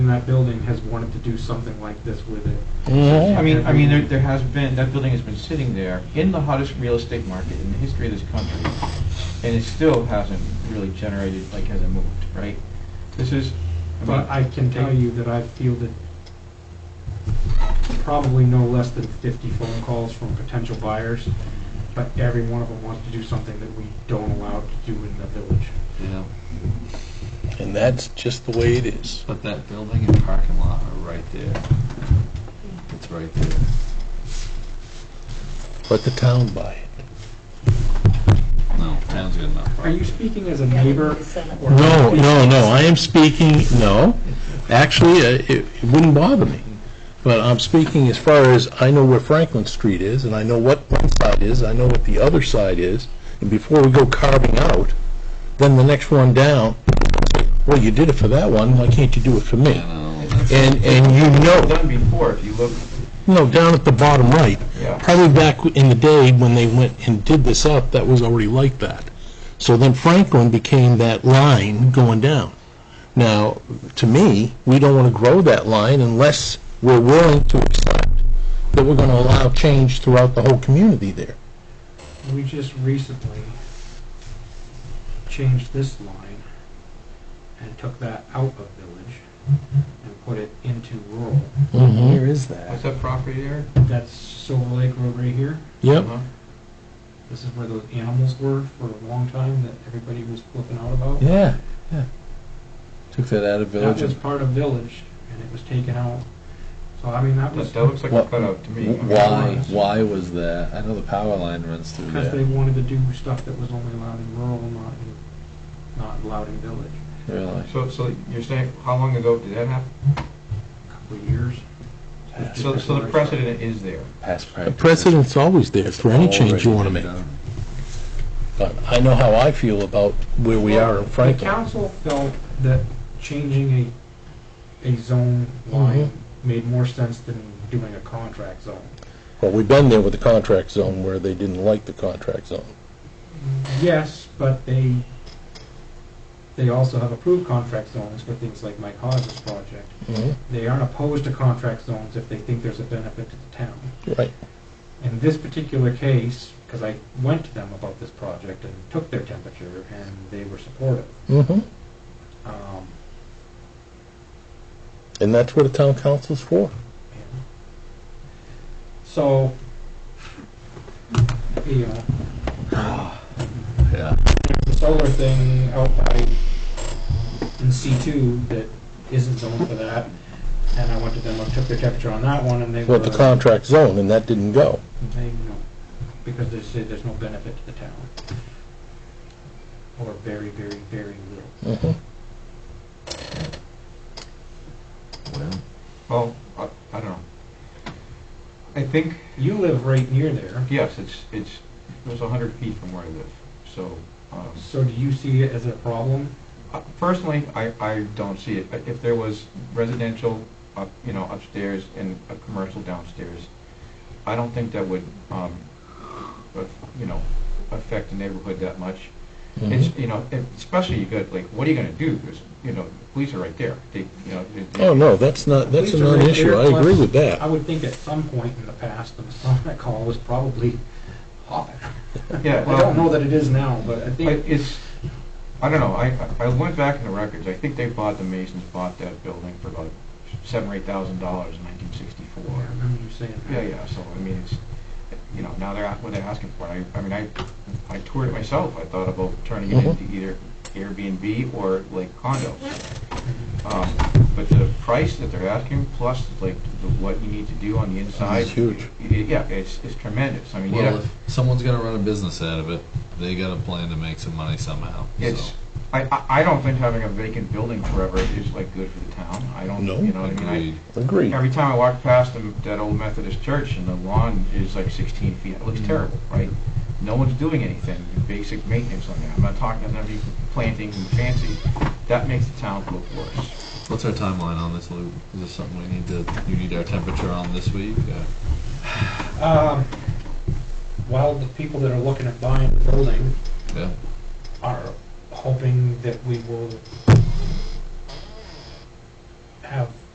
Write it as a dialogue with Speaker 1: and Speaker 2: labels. Speaker 1: that building has wanted to do something like this with it.
Speaker 2: I mean, I mean, there, there has been, that building has been sitting there in the hottest real estate market in the history of this country, and it still hasn't really generated, like, hasn't moved, right? This is, I mean,
Speaker 1: But I can tell you that I've fielded probably no less than 50 phone calls from potential buyers, but every one of them wants to do something that we don't allow to do in the village.
Speaker 3: you know,
Speaker 4: And that's just the way it is.
Speaker 3: but that building and parking lot are right there. It's right there.
Speaker 4: Let the town buy it.
Speaker 3: No, town's got enough
Speaker 1: Are you
Speaker 3: parking.
Speaker 1: speaking as a neighbor? or-
Speaker 4: No, no, no, I am speaking, no, actually, uh, it it wouldn't bother me. But I'm speaking as far as, I know where Franklin Street is, and I know what one side is, I know what the other side is, and before we go carving out, then the next one down, well, you did it for that one, why can't you do it for me?
Speaker 3: You know, that's-
Speaker 4: And, and you know,
Speaker 2: done before, if you look,
Speaker 4: No, down at the bottom right.
Speaker 2: Yeah.
Speaker 4: Probably back in the day when they went and did this up, that was already like that. So then Franklin became that line going down. Now, to me, we don't want to grow that line unless we're willing to accept that we're going to allow change throughout the whole community there.
Speaker 1: We just recently changed this line and took that out of village and put it into rural.
Speaker 4: Mm-hmm.
Speaker 5: is
Speaker 2: what's that property there? Uh-huh.
Speaker 1: That's Silver Lake Road right here.
Speaker 4: Yep.
Speaker 1: This is where those animals were for a long time that everybody was flipping out about.
Speaker 4: Yeah, yeah. Took that out of
Speaker 1: That
Speaker 4: village.
Speaker 1: was part of village, and it was taken out. So, I mean, that was
Speaker 2: That, that looks like a
Speaker 6: What-
Speaker 2: cutout to me.
Speaker 6: Why, why was that? I know the power line runs through
Speaker 1: because they
Speaker 6: there.
Speaker 1: wanted to do stuff that was only allowed in rural, not in, not allowed in village.
Speaker 6: Really?
Speaker 2: So, so you're saying, how long ago did that happen?
Speaker 1: A Couple of years.
Speaker 2: So, so the precedent is there.
Speaker 6: Past
Speaker 4: The
Speaker 6: practice.
Speaker 4: precedent's always there for any change you want to make. But I know how I feel about where we are in
Speaker 1: The
Speaker 4: Franklin.
Speaker 1: council felt that changing a, a zone
Speaker 2: Mm-hmm.
Speaker 1: line made more sense than doing a contract zone.
Speaker 4: Well, we've been there with the contract zone where they didn't like the contract zone.
Speaker 1: Yes, but they, they also have approved contract zones for things like Mike Hodges' project.
Speaker 4: Mm-hmm.
Speaker 1: They aren't opposed to contract zones if they think there's a benefit to the town.
Speaker 4: Right.
Speaker 1: In this particular case, because I went to them about this project and took their temperature, and they were supportive.
Speaker 4: Mm-hmm.
Speaker 1: Um,
Speaker 4: And that's what a town council's for.
Speaker 1: and So, you know,
Speaker 6: Yeah.
Speaker 1: the solar thing out by, in C two that isn't zoned for that, and I went to them, I took their temperature on that one, and they were,
Speaker 4: Well, the contract zone, and that didn't go.
Speaker 1: they, no, because they said there's no benefit to the town. Or very, very, very little.
Speaker 4: Mm-hmm.
Speaker 6: Well,
Speaker 2: Well, I, I don't know. I think,
Speaker 1: You live right near there,
Speaker 2: yes, it's, it's, it was a hundred feet from where I live, so, um,
Speaker 1: so do you see it as a problem?
Speaker 2: Uh, Personally, I, I don't see it. I- If there was residential, up you know, upstairs and a commercial downstairs, I don't think that would, um, af- you know, affect the neighborhood that much.
Speaker 4: Mm-hmm.
Speaker 2: It's, you know, if- especially you got, like, what are you gonna do? Because, you know, the police are right there. They, you know, they- they-
Speaker 4: Oh, no, that's not, that's a
Speaker 1: Police are right there,
Speaker 4: non-issue. I agree
Speaker 1: plus,
Speaker 4: with
Speaker 1: I
Speaker 4: that.
Speaker 1: would think at some point in the past, the Masonic Hall was probably hopping.
Speaker 2: Yeah,
Speaker 1: I don't
Speaker 2: well,
Speaker 1: know that it is now, but I
Speaker 2: I-
Speaker 1: think
Speaker 2: it's, I don't know, I, I went back in the records. I think they bought, the Masons bought that building for about seven or eight thousand dollars in nineteen
Speaker 1: I
Speaker 2: sixty-four.
Speaker 1: remember you saying that.
Speaker 2: Yeah, yeah, so, I mean, it's, you know, now they're, a- what they're asking for, I, I mean, I, I toured it myself, I thought about turning it
Speaker 4: Mhm.
Speaker 2: into either Airbnb or like condos. Um, but the price that they're asking, plus like the, what you need to do on the inside.
Speaker 4: huge.
Speaker 2: y- y- Yeah, it's, it's tremendous, I mean,
Speaker 6: well,
Speaker 2: yeah,
Speaker 6: if someone's gonna run a business out of it, they gotta plan to make some money somehow, so.
Speaker 2: it's, I, I, I don't think having a vacant building forever is like good for the town, I don't,
Speaker 4: No.
Speaker 2: you know what I mean? I-
Speaker 6: Agreed.
Speaker 4: Agreed.
Speaker 2: Every time I walk past them, that old Methodist church and the lawn is like 16 feet, it looks terrible, right? No one's doing anything, basic maintenance on that. I'm not talking about any planting and fancy. That makes the town look worse.
Speaker 6: What's our timeline on this, Lou? Is this something we need to, you need our temperature on this week? Uh,
Speaker 1: Um, Well, the people that are looking at buying the building
Speaker 6: Yeah,
Speaker 1: are hoping that we will have